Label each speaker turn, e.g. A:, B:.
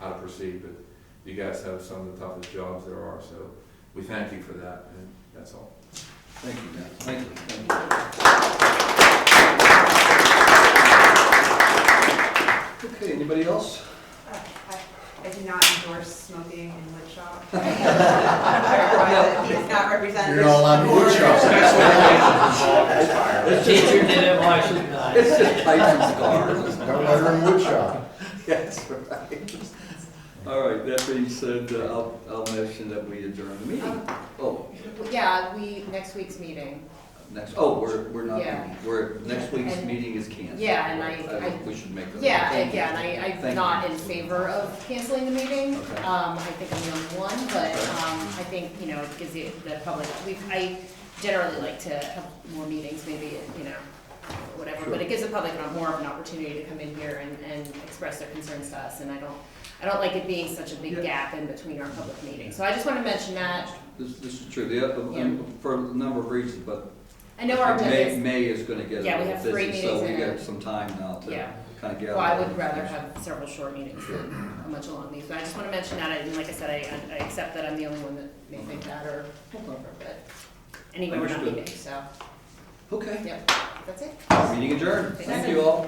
A: oversee, but you guys have some of the toughest jobs there are, so we thank you for that, and that's all.
B: Thank you, guys. Thank you. Thank you. Okay, anybody else?
C: I I do not endorse smoking in wood shop. Clarify that He's not represented.
D: You're not
C: Uh,
D: allowed to wood shop.
E: The teacher did it, why should
B: It's
E: I?
B: just pipes and cigars.
D: Don't let her in woodshop.
B: Yes, right. All right, that being said, uh, I'll, I'll mention that we adjourn the meeting. Oh,
F: Yeah, we, next week's meeting.
B: next, oh, we're, we're not,
F: Yeah.
B: we're, next week's
F: And-
B: meeting is canceled.
F: Yeah, and I-
B: think
F: I-
B: We should make that.
F: Yeah,
B: Thank you.
F: again, I,
B: Thank you.
F: I'm not in favor of canceling the meeting.
B: Okay.
F: Um, I think I'm the only one, but,
B: Okay.
F: um, I think, you know, because the, the public, we, I generally like to have more meetings, maybe, you know, whatever, but
B: Sure.
F: it gives the public a- more of an opportunity to come in here and, and express their concerns to us, and I don't, I don't like it being such a
B: Yeah.
F: big gap in between our public meetings, so I just want to mention that.
B: This, this is true, the, uh,
F: Yeah.
B: for a number of reasons, but
F: I know our
B: May,
F: business,
B: May is gonna get a
F: Yeah, we
B: little
F: have three
B: busy, so we
F: meetings in
B: got
F: a-
B: some time now to
F: Yeah.
B: kind of gather.
F: well, I
B: all
F: would
B: the
F: rather
B: information.
F: have several short meetings than a much long meeting, but I just want to mention that, and like I said, I, I accept that I'm the only one that may think that, or, but anyway, we're not
B: Understood.
F: meeting, so,
B: Okay,
F: yep, that's it.
B: meeting adjourned, thank you all.